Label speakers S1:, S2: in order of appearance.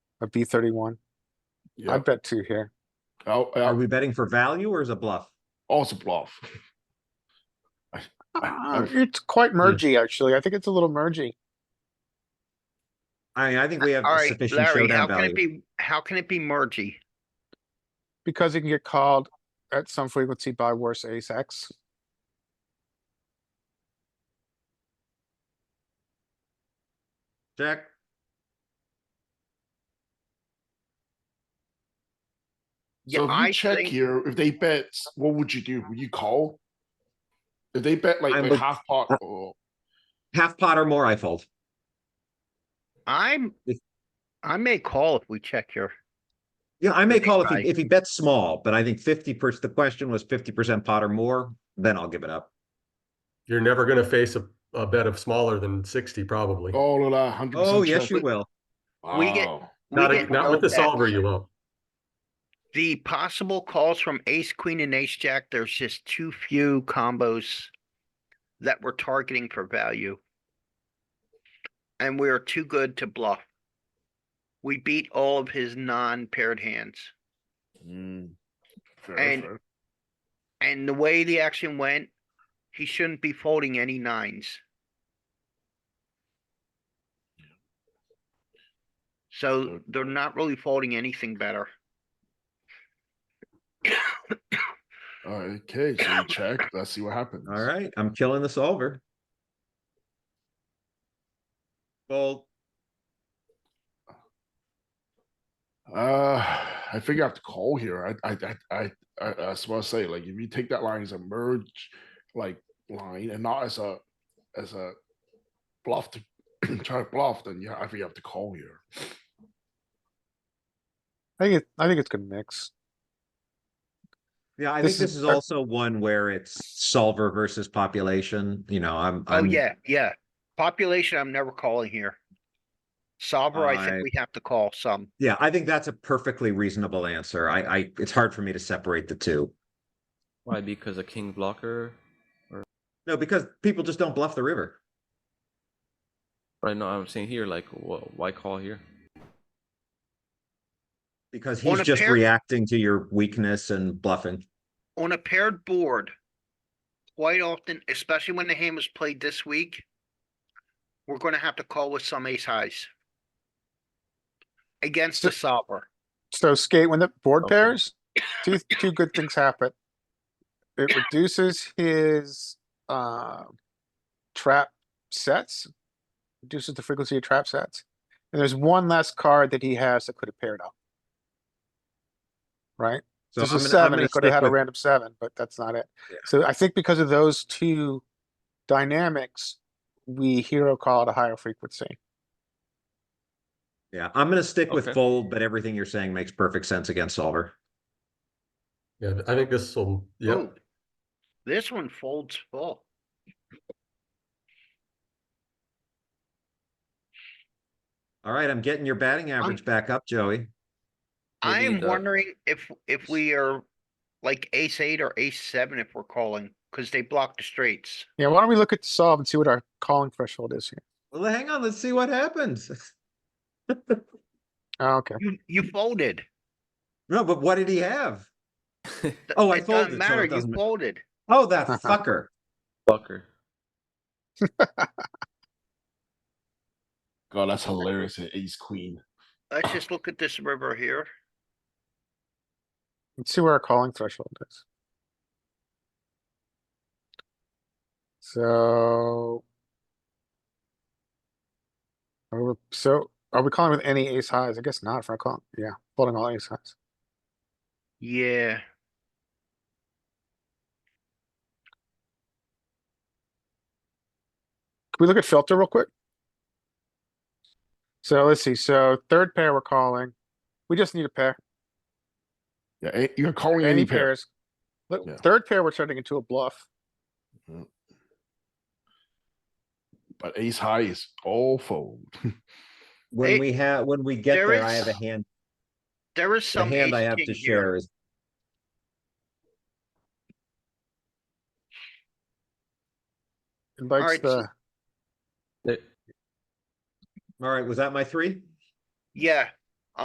S1: a B thirty-one. I
S2: Yeah,
S1: bet two here.
S2: oh,
S3: Are
S2: uh,
S3: we betting for value or is it bluff?
S2: also bluff.
S1: Uh,
S2: I-
S1: It's quite mergy, actually. I think it's a little mergy.
S3: I mean, I think we have
S4: All right,
S3: sufficient
S4: Larry, how
S3: showdown
S4: can it
S3: value.
S4: be, how can it be mergy?
S1: Because it can get called at some frequency by worse ace X.
S3: Check.
S4: Yeah,
S2: So if
S4: I
S2: you check
S4: think,
S2: here, if they bet, what would you do? Would you call? If they bet like
S3: I
S2: a
S3: would-
S2: half pot
S3: uh,
S2: or,
S3: Half pot or more, I fold.
S4: I'm,
S3: If-
S4: I may call if we check here.
S3: Yeah, I may
S4: Maybe
S3: call if
S4: I-
S3: he, if he bets small, but I think fifty percent, the question was fifty percent pot or more, then I'll give it up.
S5: You're never gonna face a, a bet of smaller than sixty, probably.
S2: all of that hundred percent.
S3: Oh, yes, you will.
S4: We get- We
S5: Not, a-
S4: get
S5: not with
S4: no
S5: the solver,
S4: bets.
S5: you won't.
S4: The possible calls from ace, queen and ace jack, there's just too few combos that we're targeting for value. And we are too good to bluff. We beat all of his non-paired hands.
S3: Mm.
S4: And- And the way the action went, he shouldn't be folding any nines. So
S2: Okay.
S4: they're not really folding anything better.
S2: Okay, so you check, let's see what happens.
S3: All right, I'm killing the solver. Fold.
S2: Uh, I think I have to call here. I, I, I, I, I, that's what I say. Like, if you take that line as a merge, like line, and not as a, as a bluff to try to bluff, then yeah, I think you have to call here.
S1: I think, it- I think it's good mix.
S3: Yeah, I
S1: This
S3: think this
S1: is
S3: is
S1: fair.
S3: also one where it's solver versus population, you know, I'm,
S4: Oh,
S3: I'm.
S4: yeah, yeah. Population, I'm never calling here. Solver, I
S3: I-
S4: think we have to call some.
S3: Yeah, I think that's a perfectly reasonable answer. I, I, it's hard for me to separate the two.
S6: Why? Because a king blocker.
S3: No, because people just don't bluff the river.
S6: Right now, I'm saying here, like, wh- why call here?
S3: Because
S4: On
S3: he's
S4: a
S3: just
S4: pair-
S3: reacting to your weakness and bluffing.
S4: On a paired board, quite often, especially when the hand was played this week, we're gonna have to call with some ace highs. Against the solver.
S1: So skate when the board
S6: Okay.
S1: pairs, two, two good things happen. It reduces his, uh, trap sets. Reduces the frequency of trap sets. And there's one less card that he has that could have paired up. Right?
S3: So
S1: This
S3: I'm
S1: is
S3: gonna- I'm
S1: seven,
S3: gonna
S1: he could have
S3: stick
S1: had a
S3: with-
S1: random seven, but that's not it.
S3: Yeah.
S1: So I think because of those two dynamics, we hero call at a higher frequency.
S3: Yeah, I'm gonna stick with
S6: Okay.
S3: fold, but everything you're saying makes perfect sense against solver.
S5: Yeah, I think this will, yeah,
S4: Ooh, This one folds full.
S3: Alright, I'm getting your batting average back up, Joey.
S6: Maybe
S4: I am
S6: the-
S4: wondering if, if we are like ace eight or ace seven if we're calling, cause they block the straights.
S1: Yeah, why don't we look at solve and see what our calling threshold is here?
S3: Well, hang on, let's see what happens.
S1: Oh, Okay,
S4: You, you folded.
S3: No, but what did he have?
S4: Th-
S3: Oh, I
S4: it doesn't
S3: folded, so it
S4: matter, You
S3: doesn't ma-
S4: folded.
S3: Oh, that fucker.
S6: Blocker.
S2: God, that's hilarious. an Ace queen.
S4: Let's just look at this river here.
S1: let's see where our calling threshold is. So. are we- So are we calling with any ace highs? I guess not for a call. Yeah, folding all ace highs.
S4: Yeah,
S1: Can we look at filter real quick? So let's see, so third pair we're calling. We just need a pair,
S2: Yeah, a- you're calling
S1: any
S2: any pair.
S1: pairs. Look,
S2: Yeah.
S1: third pair, we're turning into a bluff.
S2: But ace high is all fold.
S3: When
S4: Hey,
S3: we have, when we get
S4: there
S3: there, I have a
S4: is
S3: hand,
S4: there is
S3: the
S4: some
S3: hand I
S4: ace
S3: have
S4: king
S3: to
S4: here.
S3: share is.
S1: Invites
S4: right, so-
S1: the,
S6: There-
S3: Alright, was that my three?
S4: Yeah,